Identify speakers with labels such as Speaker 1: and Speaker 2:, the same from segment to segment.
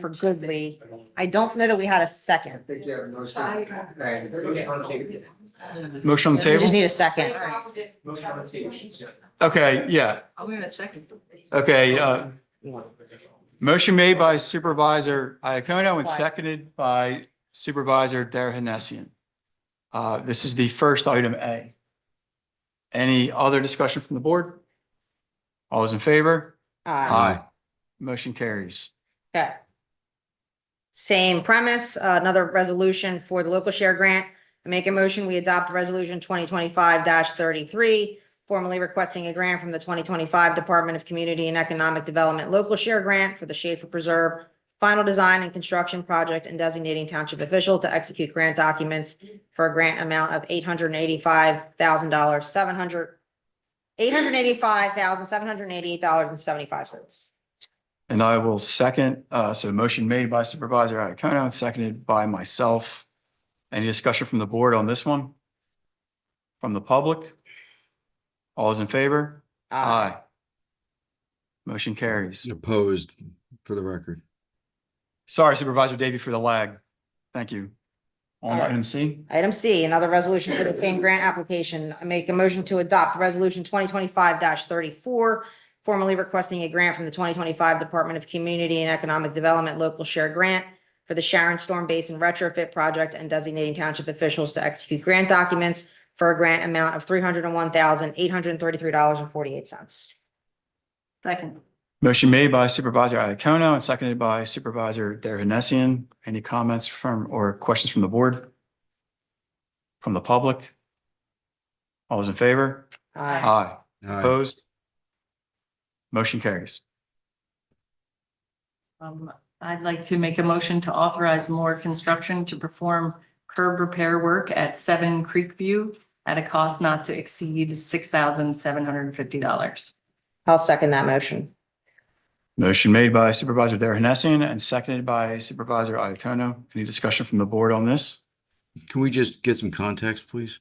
Speaker 1: for Goodley. I don't know that we had a second.
Speaker 2: Think you have a motion. Okay. Motion on the table.
Speaker 3: Motion on the
Speaker 1: We just
Speaker 3: table?
Speaker 1: need a second.
Speaker 2: Motion on the table. yeah.
Speaker 3: Okay, yeah.
Speaker 4: I'll wait a second.
Speaker 3: Okay, uh, motion made by Supervisor Iacono and seconded by Supervisor Derhenessian. Uh, this is the first item A. Any other discussion from the board? All those in favor?
Speaker 1: Uh,
Speaker 3: Aye. Motion carries.
Speaker 1: Okay. Same premise, uh, another resolution for the local share grant. I Make a motion, we adopt resolution twenty twenty-five thirty-three, formally requesting a grant from the twenty twenty-five Department of Community and Economic Development Local Share Grant for the Schaefer Preserve Final Design and Construction Project and designating township official to execute grant documents for a grant amount of eight hundred and eighty-five thousand dollars, seven hundred, eight hundred and eighty-five thousand, seven hundred and eighty-eight dollars and seventy-five cents.
Speaker 3: And I will second, uh, so motion made by Supervisor Iacono and seconded by myself. Any discussion from the board on this one? From the public? All those in favor? Aye. Motion carries.
Speaker 5: Opposed, for the record.
Speaker 3: Sorry Supervisor Davy for the lag. Thank you. On
Speaker 1: Alright.
Speaker 3: item C,
Speaker 1: Item C, another resolution for the same grant application. I make a motion to adopt resolution twenty twenty-five thirty-four, formally requesting a grant from the twenty twenty-five Department of Community and Economic Development Local Share Grant for the Sharon Storm Basin retrofit project and designating township officials to execute grant documents for a grant amount of three hundred and one thousand, eight hundred and thirty-three dollars and forty-eight cents.
Speaker 4: Second.
Speaker 3: motion made by Supervisor Iacono and seconded by Supervisor Derhinessian. Any comments from or questions from the board? From the public? All those in favor? Aye.
Speaker 5: Aye.
Speaker 3: Opposed? Motion carries.
Speaker 4: Um, I'd like to make a motion to authorize more construction to perform curb repair work at Seven Creek View at a cost not to exceed six thousand seven hundred and fifty dollars.
Speaker 1: I'll second that motion.
Speaker 3: Motion made by Supervisor Derhinessian and seconded by Supervisor Iacono. Any discussion from the board on this?
Speaker 5: Can we just get some context, please?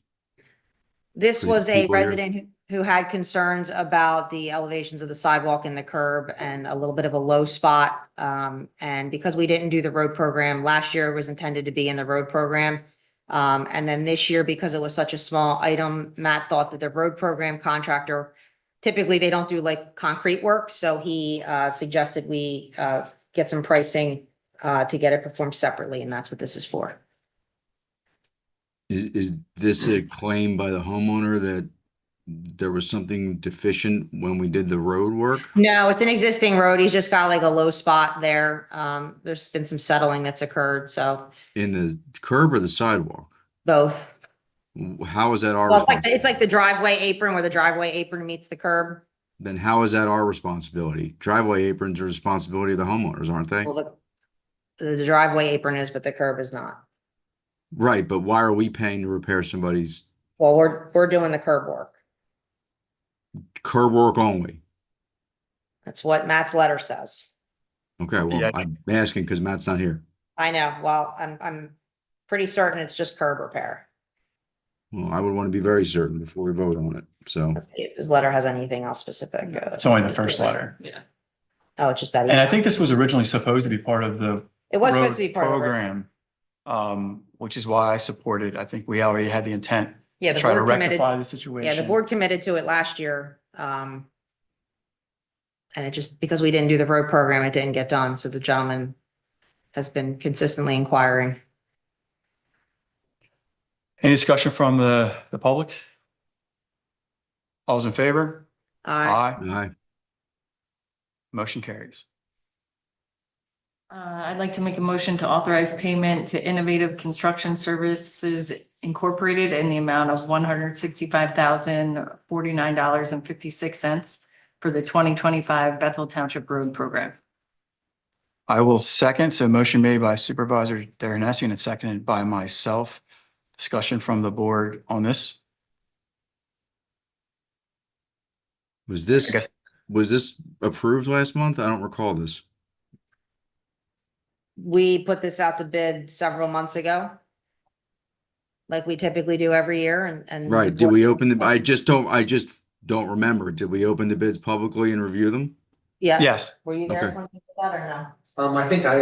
Speaker 1: This
Speaker 5: Please,
Speaker 1: was a
Speaker 5: people here.
Speaker 1: resident who who had concerns about the elevations of the sidewalk and the curb and a little bit of a low spot. Um, and because we didn't do the road program, last year it was intended to be in the road program. Um, and then this year, because it was such a small item, Matt thought that the road program contractor, typically they don't do like concrete work, so he, uh, suggested we, uh, get some pricing, uh, to get it performed separately, and that's what this is for.
Speaker 5: Is, is this a claim by the homeowner that there was something deficient when we did the road work?
Speaker 1: No, it's an existing road. He's just got like a low spot there. Um, there's been some settling that's occurred, so
Speaker 5: In the curb or the sidewalk?
Speaker 1: both.
Speaker 5: W- How is that our
Speaker 1: Well, it's like, it's
Speaker 5: responsibility?
Speaker 1: like the driveway apron where the driveway apron meets the curb.
Speaker 5: Then how is that our responsibility? Driveway aprons are responsibility of the homeowners, aren't they?
Speaker 1: Well, The the driveway apron is, but the curb is not.
Speaker 5: Right, but why are we paying to repair somebody's
Speaker 1: Well, we're, we're doing the curb work.
Speaker 5: curb work only?
Speaker 1: That's what Matt's letter says.
Speaker 5: Okay,
Speaker 3: Yeah,
Speaker 5: well,
Speaker 3: I
Speaker 5: I'm asking because Matt's not here.
Speaker 1: I know. Well, I'm, I'm pretty certain it's just curb repair.
Speaker 5: Well, I would want to be very certain before we vote on it, so.
Speaker 1: Let's see if His letter has anything else specific. uh,
Speaker 3: It's only the first letter.
Speaker 4: Yeah.
Speaker 1: Oh, it's just that.
Speaker 3: And I
Speaker 1: email.
Speaker 3: think this was originally supposed to be part of the
Speaker 1: It was
Speaker 3: road
Speaker 1: supposed to be part of. the-
Speaker 3: Program, um, which is why I supported. I think we already had the intent
Speaker 1: Yeah,
Speaker 3: to
Speaker 1: the
Speaker 3: try to
Speaker 1: board committed.
Speaker 3: rectify the situation.
Speaker 1: Yeah, the board committed to it last year. Um, and it just, because we didn't do the road program, it didn't get done. So the gentleman has been consistently inquiring.
Speaker 3: Any discussion from the, the public? All's in favor?
Speaker 1: Uh,
Speaker 3: Aye.
Speaker 5: Aye.
Speaker 3: Motion carries.
Speaker 4: Uh, I'd like to make a motion to authorize payment to Innovative Construction Services Incorporated in the amount of one hundred sixty-five thousand forty-nine dollars and fifty-six cents for the twenty twenty-five Bethel Township Road Program.
Speaker 3: I will second. So motion made by Supervisor Derrenessing and seconded by myself. Discussion from the board on this?
Speaker 5: Was
Speaker 3: I
Speaker 5: this,
Speaker 3: guess
Speaker 5: was this approved last month? I don't recall this.
Speaker 1: we put this out to bid several months ago. Like we typically do every year and, and. the
Speaker 5: Right, did we
Speaker 1: board-
Speaker 5: open the, I just don't, I just don't remember. Did we open the bids publicly and review them?
Speaker 1: Yeah.
Speaker 3: Yes.
Speaker 1: Were you there
Speaker 5: Okay.
Speaker 1: when we did that or no?
Speaker 2: Um, I think I